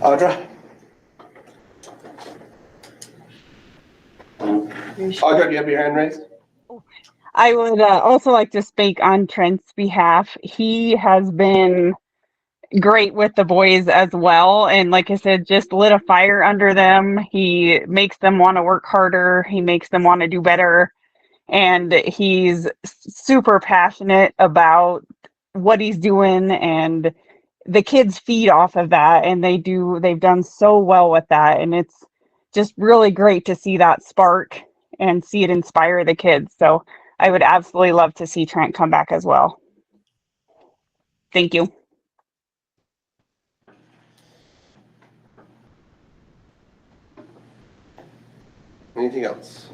Audra? Audra, do you have your hand raised? I would uh, also like to speak on Trent's behalf. He has been great with the boys as well. And like I said, just lit a fire under them. He makes them want to work harder, he makes them want to do better. And he's super passionate about what he's doing. And the kids feed off of that. And they do, they've done so well with that. And it's just really great to see that spark and see it inspire the kids. So, I would absolutely love to see Trent come back as well. Thank you. Anything else?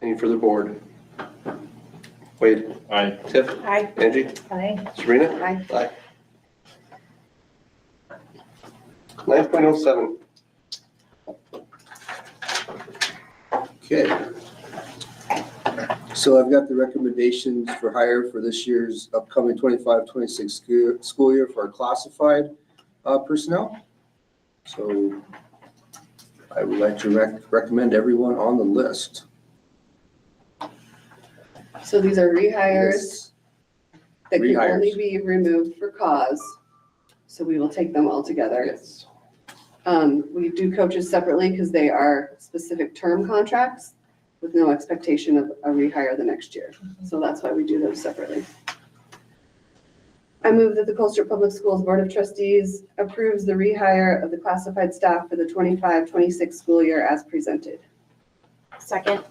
Any further board? Wade? Aye. Tiff? Aye. Angie? Aye. Serena? Aye. Aye. Nine point oh seven. Okay. So I've got the recommendations for hire for this year's upcoming 25-26 scho- school year for our classified uh, personnel. So I would like to rec- recommend everyone on the list. So these are rehires that can only Rehires. be removed for cause. So we will take them all together. Yes. Um, we do coaches separately because they are specific term contracts with no expectation of a rehire the next year. So that's why we do those separately. I move that the Colster Public Schools Board of Trustees approves the rehire of the classified staff for the 25-26 school year as presented. Second.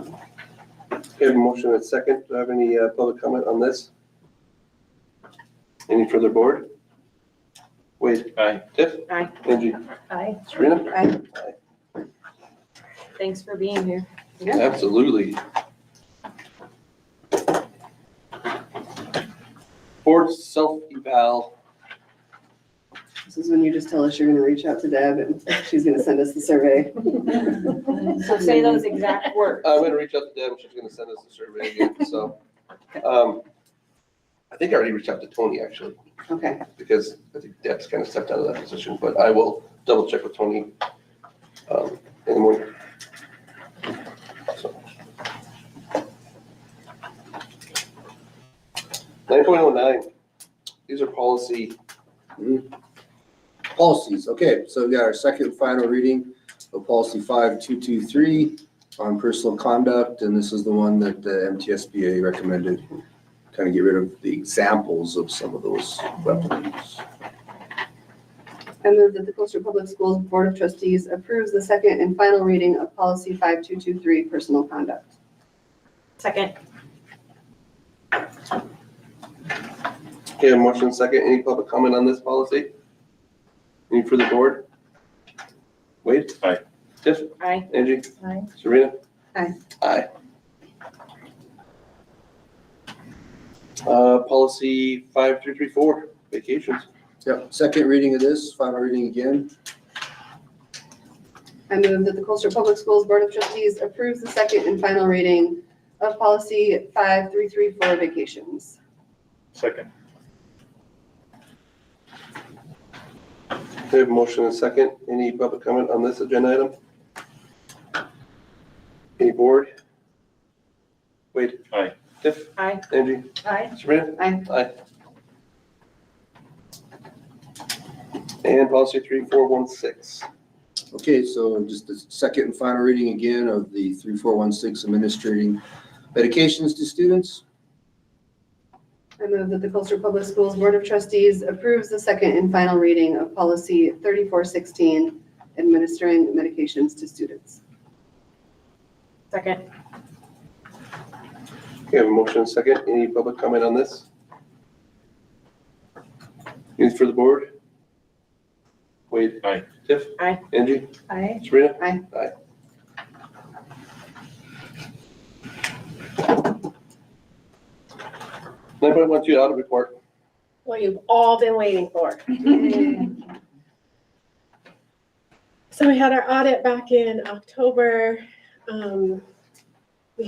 We have a motion and a second. Do I have any uh, public comment on this? Any further board? Wade? Aye. Tiff? Aye. Angie? Aye. Serena? Aye. Thanks for being here. Yeah. Absolutely. Board self-eval. This is when you just tell us you're gonna reach out to Deb and she's gonna send us the survey. So say those exact words. I'm gonna reach out to Deb. She's gonna send us a survey again, so. um, I think I already reached out to Tony, actually, Okay, because I think Deb's kind of stepped out of that position, but I will double check with Tony um, in the morning. Nine point oh nine, these are policy Policies, okay, so we've got our second final reading of policy five two two three on personal conduct, and this is the one that the MTSBA recommended. Kind of get rid of the examples of some of those weapons. I move that the Colchester Public Schools Board of Trustees approves the second and final reading of policy 5223, personal conduct. Second. Okay, a motion second. Any public comment on this policy? Any for the board? Wade? Aye. Tiff? Aye. Angie? Aye. Serena? Aye. Aye. Uh, policy five three three four, vacations. Yep, second reading of this, final reading again. I move that the Colchester Public Schools Board of Trustees approves the second and final reading of policy 5334, vacations. Second. We have a motion and second. Any public comment on this agenda item? Any board? Wade? Aye. Tiff? Aye. Angie? Aye. Sabrina? Aye. Aye. And policy three, four, one, six. Okay, so just the second and final reading again of the 3416 administering medications to students. I move that the Colchester Public Schools Board of Trustees approves the second and final reading of policy 3416, administering medications to students. Second. We have a motion and second. Any public comment on this? Any for the board? Wade? Aye. Tiff? Aye. Angie? Aye. Sabrina? Aye. Aye. Nine point one two, audit report. what you've all been waiting for. So we had our audit back in October. Um,